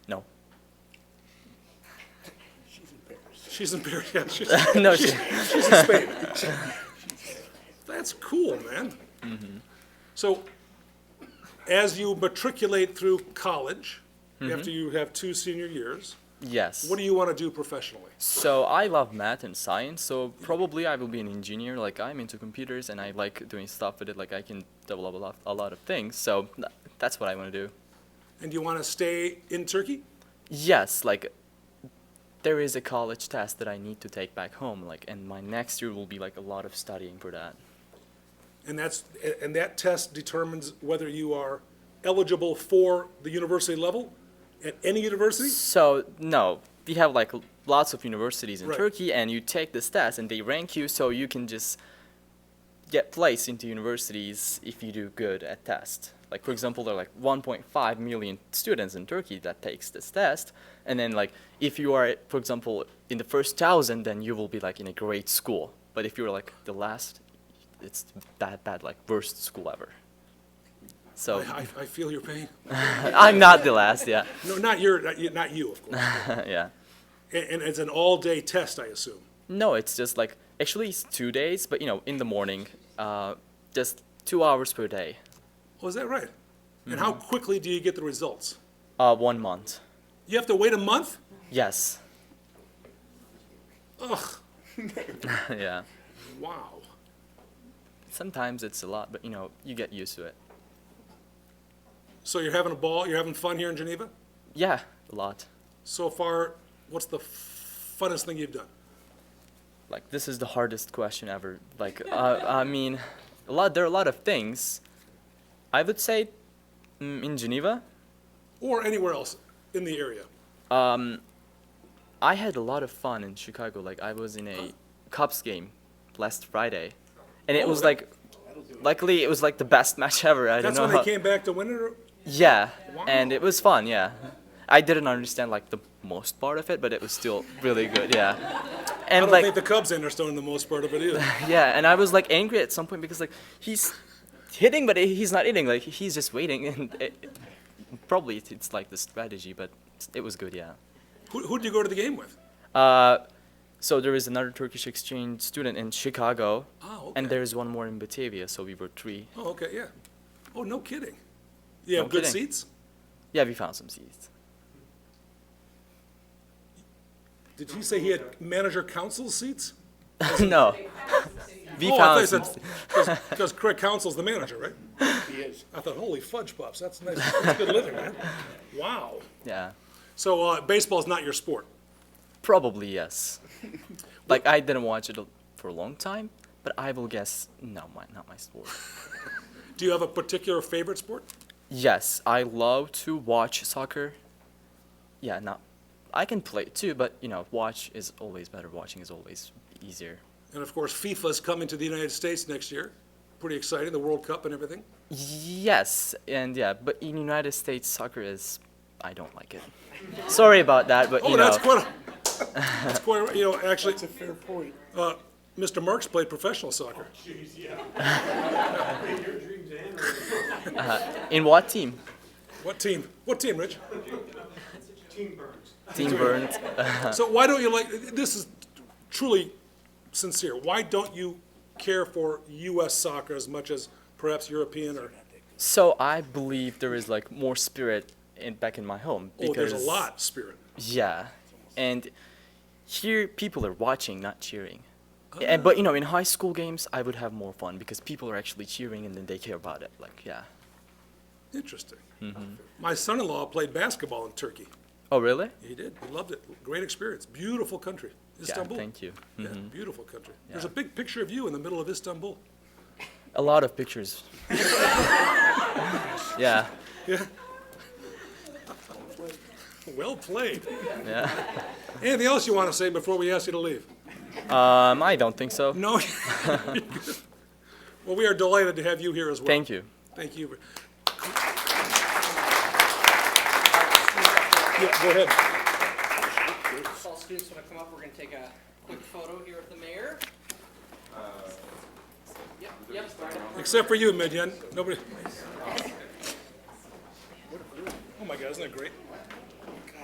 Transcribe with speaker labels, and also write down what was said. Speaker 1: She's in Paris. Yeah, she's,
Speaker 2: No,
Speaker 1: she's,
Speaker 2: she-
Speaker 1: she's in Spain. That's cool, man. So, as you matriculate through college, after you have two senior years,
Speaker 2: Yes.
Speaker 1: what do you want to do professionally?
Speaker 2: So I love math and science. So probably I will be an engineer. Like I'm into computers and I like doing stuff with it. Like I can develop a lot, a lot of things. So th- that's what I want to do.
Speaker 1: And do you want to stay in Turkey?
Speaker 2: Yes, like there is a college test that I need to take back home. Like and my next year will be like a lot of studying for that.
Speaker 1: And that's and that test determines whether you are eligible for the university level at any university.
Speaker 2: So no, we have like l- lots of universities in
Speaker 1: Right.
Speaker 2: Turkey, and you take this test, and they rank you, so you can just get placed into universities if you do good at test. Like for example, there are like 1.5 million students in Turkey that takes this test, and then like if you are, for example, in the first thousand, then you will be like in a great school. But if you're like the last, it's that bad, like worst school ever.
Speaker 1: I,
Speaker 2: So
Speaker 1: I, I feel your pain.
Speaker 2: I'm not the last, yeah,
Speaker 1: No, not your, not you- not you, of course.
Speaker 2: yeah.
Speaker 1: And, and it's an all-day test, I assume.
Speaker 2: No, it's just like actually it's two days, but you know, in the morning, uh, just two hours per day,
Speaker 1: Oh, is that right? And how
Speaker 2: Mm-hmm.
Speaker 1: quickly do you get the results?
Speaker 2: uh, one month.
Speaker 1: You have to wait a month?
Speaker 2: Yes.
Speaker 1: Ugh,
Speaker 2: yeah.
Speaker 1: wow.
Speaker 2: Sometimes it's a lot, but you know, you get used to it.
Speaker 1: So you're having a ball, you're having fun here in Geneva?
Speaker 2: Yeah, a lot.
Speaker 1: So far, what's the f- funnest thing you've done?
Speaker 2: Like this is the hardest question ever. Like uh, I mean, a lot. There are a lot of things. I would say, mm, in Geneva,
Speaker 1: Or anywhere else in the area?
Speaker 2: I had a lot of fun in Chicago. Like I was in a Cubs game last Friday, and it
Speaker 1: Oh,
Speaker 2: was
Speaker 1: that-
Speaker 2: like, luckily it was like the best match ever. I don't
Speaker 1: That's
Speaker 2: know.
Speaker 1: when they
Speaker 2: how-
Speaker 1: came back to win it? or-
Speaker 2: Yeah, and it was fun. Yeah, I didn't understand like the most part of it, but it was still really good. Yeah,
Speaker 1: I
Speaker 2: and
Speaker 1: don't
Speaker 2: like
Speaker 1: think the Cubs understand the most part of it either.
Speaker 2: yeah, and I was like angry at some point because like he's hitting, but he's not hitting. Like he's just waiting, and it, probably it's- it's like the strategy, but it was good. Yeah.
Speaker 1: Who, who'd you go to the game with?
Speaker 2: Uh, so there is another Turkish exchange student in Chicago,
Speaker 1: Oh,
Speaker 2: and
Speaker 1: okay.
Speaker 2: there is one more in Batavia. So we were three.
Speaker 1: Oh, okay, yeah. Oh, no kidding. You have
Speaker 2: No
Speaker 1: good
Speaker 2: kidding.
Speaker 1: seats?
Speaker 2: Yeah, we found some seats.
Speaker 1: Did he say he had manager council seats?
Speaker 2: no, we
Speaker 1: oh,
Speaker 2: found
Speaker 1: I
Speaker 2: some.
Speaker 1: thought you said, because Craig Council's the manager, right?
Speaker 3: He is.
Speaker 1: I thought, holy fudge pops, that's nice, that's good living, man. Wow.
Speaker 2: Yeah.
Speaker 1: So uh, baseball's not your sport.
Speaker 2: Probably yes. like I didn't watch it for a long time, but I will guess no, my, not my sport.
Speaker 1: Do you have a particular favorite sport?
Speaker 2: yes, I love to watch soccer. Yeah, not. I can play it too, but you know, watch is always better. Watching is always easier.
Speaker 1: And of course, FIFA's coming to the United States next year. Pretty exciting, the World Cup and everything.
Speaker 2: Yes, and yeah, but in United States, soccer is. I don't like it. Sorry about that, but
Speaker 1: Oh,
Speaker 2: you know.
Speaker 1: that's quite, a- that's quite, a- you know, actually,
Speaker 3: It's a fair point.
Speaker 1: uh, Mr. Marks played professional soccer.
Speaker 2: in what team?
Speaker 1: What team? What team, Rich?
Speaker 2: Team Burns.
Speaker 1: So why don't you like, this is truly sincere, why don't you care for US soccer as much as perhaps European or?
Speaker 2: So I believe there is like more spirit in back in my home.
Speaker 1: Oh, there's a
Speaker 2: because-
Speaker 1: lot, Spirit.
Speaker 2: Yeah, and here people are watching, not cheering.
Speaker 1: Ah.
Speaker 2: And but you know, in high school games, I would have more fun because people are actually cheering and then they care about it. Like yeah.
Speaker 1: Interesting.
Speaker 2: Mm-hmm.
Speaker 1: My son-in-law played basketball in Turkey.
Speaker 2: Oh really?
Speaker 1: He did. He loved it. Great experience. Beautiful country. Istanbul.
Speaker 2: Yeah. Thank you. Mm-hmm.
Speaker 1: Yeah, beautiful country. There's a
Speaker 2: Yeah.
Speaker 1: big picture of you in the middle of Istanbul.
Speaker 2: A lot of pictures. yeah.
Speaker 1: Well played.
Speaker 2: Yeah.
Speaker 1: Anything else you want to say before we ask you to leave?
Speaker 2: Um, I don't think so.
Speaker 1: No? Well, we are delighted to have you here as well.
Speaker 2: Thank you.
Speaker 1: Thank you. Yeah, go ahead.
Speaker 4: If all students want to come up, we're going to take a quick photo here with the mayor. Yep, yep. right up front.
Speaker 1: Except for you, Midyan. Nobody. Oh my God, isn't that great?